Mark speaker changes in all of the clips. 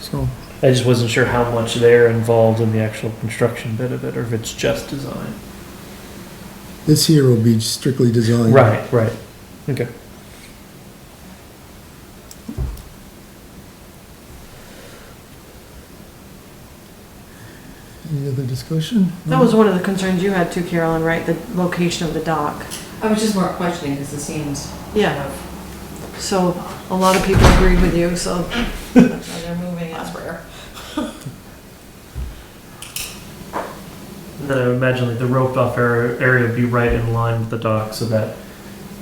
Speaker 1: so.
Speaker 2: I just wasn't sure how much they're involved in the actual construction bit of it, or if it's just design.
Speaker 1: This here will be strictly design.
Speaker 2: Right, right. Okay.
Speaker 1: Any other discussion?
Speaker 3: That was one of the concerns you had too, Carolyn, right? The location of the dock.
Speaker 4: I was just more questioning because it seems.
Speaker 3: Yeah, so a lot of people agreed with you, so
Speaker 4: They're moving elsewhere.
Speaker 2: And Then I would imagine like the roped off ar- area would be right in line with the dock so that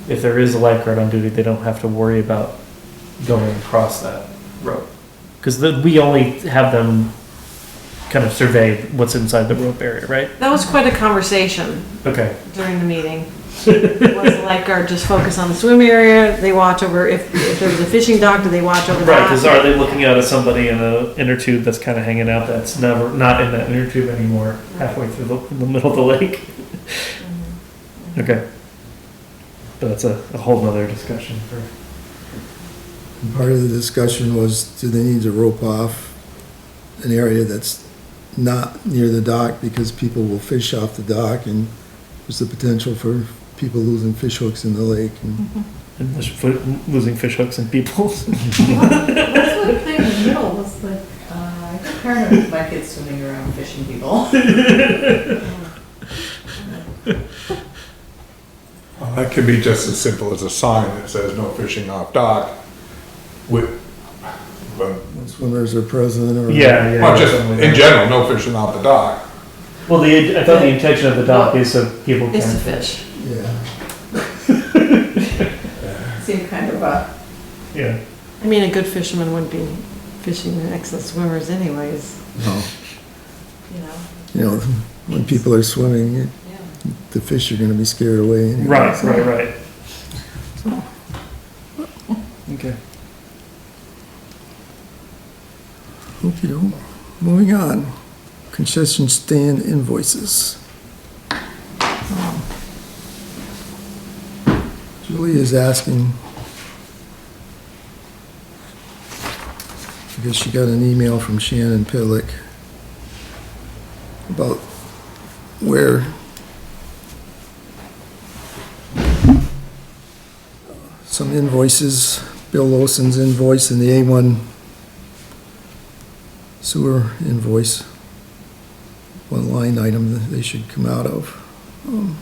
Speaker 2: if there is a lifeguard on duty, they don't have to worry about going across that rope. Because we only have them kind of survey what's inside the rope area, right?
Speaker 3: that was quite a conversation
Speaker 2: Okay.
Speaker 3: during the meeting. Was the lifeguard just focus on the swim area? They watch over, if, if there was a fishing dock, do they watch over
Speaker 2: Right, because
Speaker 3: that?
Speaker 2: are they looking out at somebody in an inner tube that's kind of hanging out that's never not in that inner tube anymore, halfway through the, in the middle of the lake?
Speaker 4: Mm-hmm.
Speaker 2: Okay. But that's a, a whole nother discussion for.
Speaker 1: And Part of the discussion was, do they need to rope off an area that's not near the dock because people will fish off the dock and there's the potential for people losing fish hooks in the lake. and-
Speaker 2: And fish- fi- losing fish hooks and people.
Speaker 4: That's what I played in the middle was like, uh, I got paranoid with my kids swimming around fishing people.
Speaker 5: Well, That could be just as simple as a sign that says no fishing off dock with, but,
Speaker 3: Mm-hmm.
Speaker 1: Swimmers are present or.
Speaker 2: yeah, yeah.
Speaker 5: well, just in general, no fishing off the dock.
Speaker 2: well, the I thought the intention of the dock is so people
Speaker 3: Is to
Speaker 2: can.
Speaker 3: fish.
Speaker 1: Yeah.
Speaker 4: Seemed kind of uh
Speaker 2: Yeah.
Speaker 3: I mean, a good fisherman wouldn't be fishing next to swimmers anyways,
Speaker 1: No.
Speaker 4: you know.
Speaker 1: You know, when people are swimming, the fish are gonna be scared away. anyway.
Speaker 2: Right, right, right. Okay.
Speaker 1: Okay, moving on. Concession stand invoices. Um, Julie is asking. I guess she got an email from Shannon Pillick about where uh, some invoices, Bill Lawson's invoice and the A1 sewer invoice, one line item that they should come out of. Um,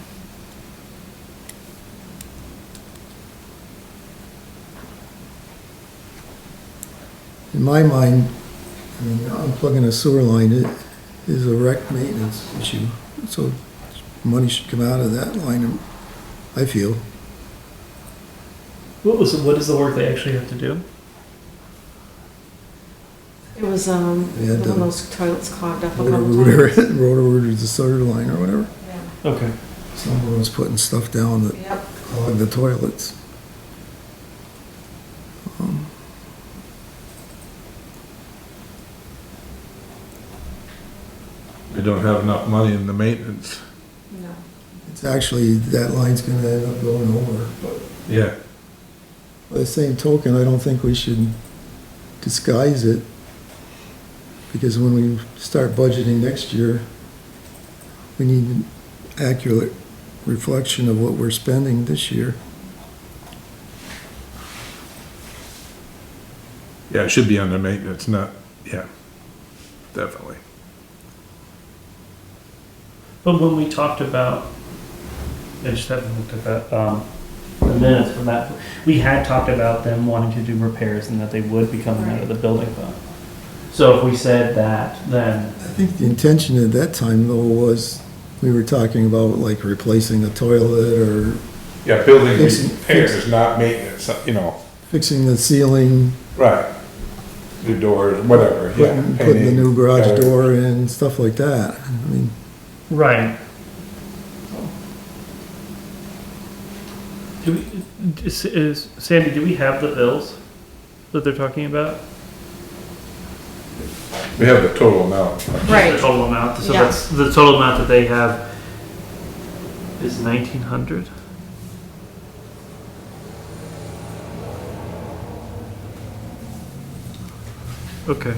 Speaker 1: In my mind, I mean, unplugging a sewer line i- is a wreck maintenance issue, so money should come out of that line, I feel.
Speaker 2: What was what is the work they actually have to do?
Speaker 3: It was, um,
Speaker 1: Yeah,
Speaker 3: one
Speaker 1: the-
Speaker 3: of those toilets clogged up a couple
Speaker 1: Rotor
Speaker 3: times.
Speaker 1: rooter, the sewer line or whatever,
Speaker 2: Okay.
Speaker 1: someone was putting stuff down that
Speaker 4: Yep.
Speaker 1: clog the toilets. Um,
Speaker 5: We don't have enough money in the maintenance.
Speaker 4: No.
Speaker 1: It's actually, that line's gonna end up going over, but
Speaker 5: Yeah.
Speaker 1: by the same token, I don't think we should disguise it. Because when we start budgeting next year, we need an accurate reflection of what we're spending this year.
Speaker 5: Yeah, it should be under maintenance, not, yeah, definitely.
Speaker 2: But when we talked about, I just haven't looked at that, um, the minutes from that, we had talked about them wanting to do repairs and that they would be coming out of the building fund. So if we said that, then,
Speaker 1: I think the intention at that time though was, we were talking about like replacing a toilet or
Speaker 5: Yeah, building
Speaker 1: Fix-
Speaker 5: repairs, not maintenance, you know,
Speaker 1: fixing the ceiling,
Speaker 5: right. New doors, whatever, yeah.
Speaker 1: putting, putting the new
Speaker 5: painting,
Speaker 1: garage
Speaker 5: gutters.
Speaker 1: door in, stuff like that. I mean,
Speaker 2: right. Do we, is, is- Sandy, do we have the bills that they're talking about?
Speaker 5: We have the total amount.
Speaker 2: The
Speaker 3: Right,
Speaker 2: total amount, so
Speaker 3: Yeah.
Speaker 2: that's, the total amount that they have is nineteen hundred? Okay.